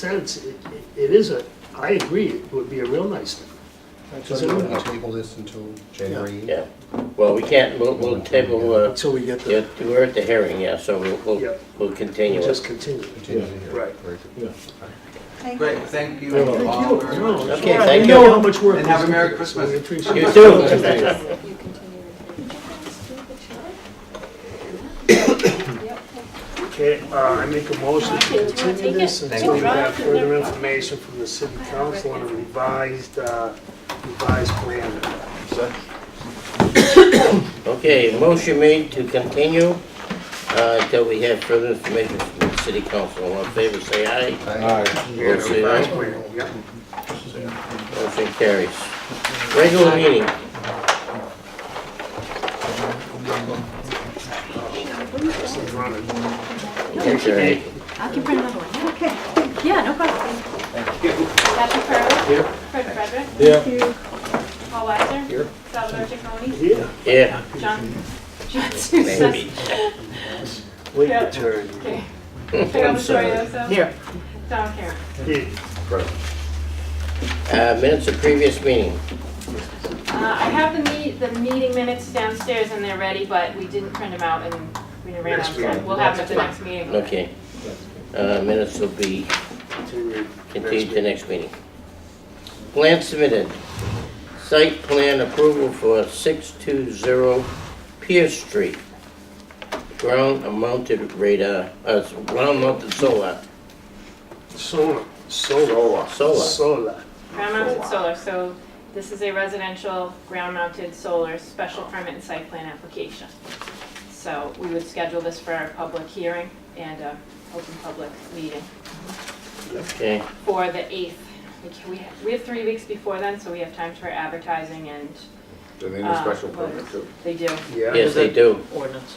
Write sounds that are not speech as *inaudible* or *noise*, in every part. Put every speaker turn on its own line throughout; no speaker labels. sense, it, it is a, I agree, it would be a real nice thing.
So do you want to table this until January?
Yeah, well, we can't, we'll, we'll table, uh,
Until we get
yeah,
the,
we're at the hearing, yeah, so we'll,
Yeah.
we'll, we'll continue
just
it.
continue.
Continue to hear.
Right.
Very good.
Thank you.
Great, thank you
Thank you.
all very
No,
much.
it's
Okay,
all right.
thank
We
you.
know how much work.
And have
goes
a Merry
into this, so
Christmas.
We appreciate
You
it.
too.
You continue. Did you guys do the chart? Yep.
Okay, uh, I make a motion
Do you
to
wanna
continue
take
this
it?
until we
Take it.
have further information from the city council on a revised, uh, revised plan.
Okay, motion made to continue, uh, until we have further information from the city council. All in favor, say aye.
Aye.
Yeah,
Motion say
revised
aye.
plan, oh, yeah.
Motion carries. Regular meeting.
This is running.
Take care.
I can print another one. Okay. Yeah, no problem.
Kathy Curley.
Here.
Fred Frederick.
Yeah.
Paul Weiser. Salvador Jaconi.
Yeah,
Yeah,
John. John Susan.
maybe.
wait your
Yeah.
turn.
Okay. Carol
I'm sorry.
Vittorioso.
Here.
Tom Karen.
Yeah.
Uh, minutes of previous meeting.
Uh, I have the meet, the meeting minutes downstairs and they're ready, but we didn't print them out and we ran out
Next
of time.
meeting.
We'll have them at the next meeting.
Okay. Uh, minutes will be
Continue.
continued to next meeting. Plan submitted. Site plan approval for 620 Pierce Street. Ground mounted radar, uh, ground mounted solar,
Solar, solar.
Solar.
Solar.
Ground mounted solar, so this is a residential ground mounted solar special permit and site plan application. So we would schedule this for our public hearing and uh, open public meeting.
okay?
for the 8th. We can- We have, we have three weeks before then, so we have time for advertising and.
And then
uh,
a special permit
voters.
too.
They do,
Yeah.
Yes, they do.
Ordinance.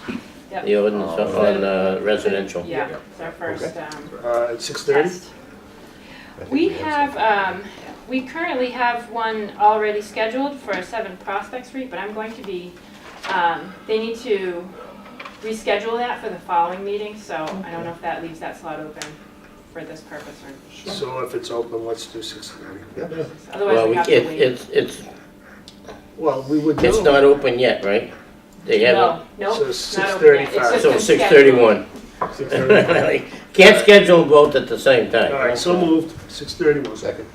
Yep.
The ordinance on uh, residential.
yeah, it's our first um,
Uh, at six thirty?
test. We have, um, we currently have one already scheduled for 7 Prospect Street, but I'm going to be, um, they need to reschedule that for the following meeting, so I don't know if that leaves that slot open for this purpose or,
So if it's open, let's do six thirty.
otherwise
Well,
we
we-
have to
it-
wait.
it's, it's,
Well, we would know.
it's not open yet, right? They haven't,
No, no,
So
not open yet.
6:35.
It's just
so
been *laughs*
6:31.
Six thirty.
*laughs*
Can't schedule both at the same time.
All right, so moved, six thirty was.
Second.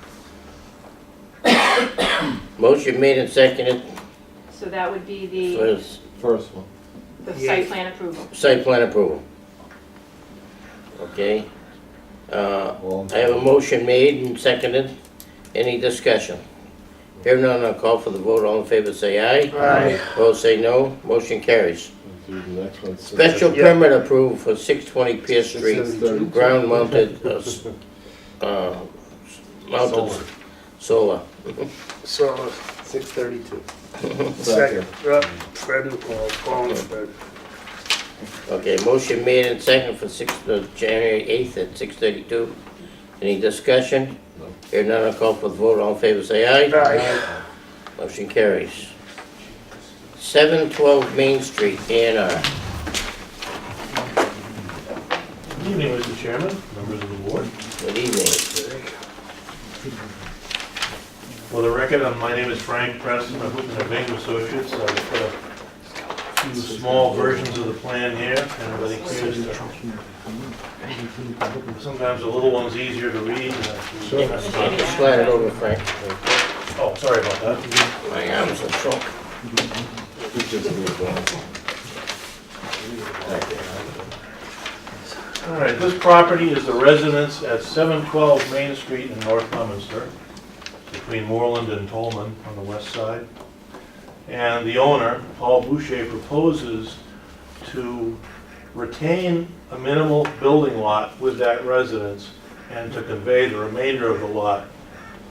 Motion made and seconded
So that would be the,
for
First one.
the
Yeah.
site plan approval.
Site plan approval. Okay. Uh,
Well,
I have a motion made and seconded. Any discussion? Here none, I'll call for the vote. All in favor, say aye.
Aye.
Opposed, say no. Motion carries.
do the next one. Six
Special
Yeah.
permit approved for 620 Pierce Street,
thirty.
ground mounted, uh, s- uh, s- mounted s- solar.
So,
Six thirty-two.
second, uh, Fred and Paul, Paul and Fred.
Okay, motion made and seconded for 6, uh, January 8th at 6:32. Any discussion?
No.
Here none, I'll call for the vote. All in favor, say aye.
Aye.
Motion carries. 712 Main Street, A and R.
Good evening, Mr. Chairman, members of the board.
Good evening.
For the record, um, my name is Frank Preston, I'm with the Bing Associates. I've got a few small versions of the plan here, everybody clears their... uh, Sometimes the little one's easier to read. than the-
Slide it over, Frank.
Oh, sorry about that.
My arms are shrunk.
All right, this property is the residence at 712 Main Street in North Leominster, between Moreland and Tolman on the west side. And the owner, Paul Boucher, proposes to retain a minimal building lot with that residence and to convey the remainder of the lot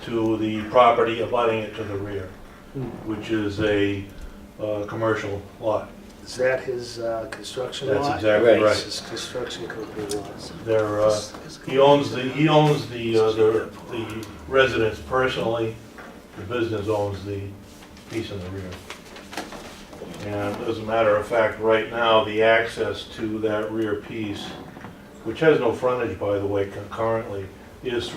to the property abutting it to the rear, which is a uh, commercial lot.
Is that his, uh, construction lot?
That's exactly
Right.
right.
His construction company lot.
They're, uh, he owns the, he owns the, uh, the the residence personally, the business owns the piece in the rear. And as a matter of fact, right now, the access to that rear piece, which has no frontage, by the way, cu- currently, is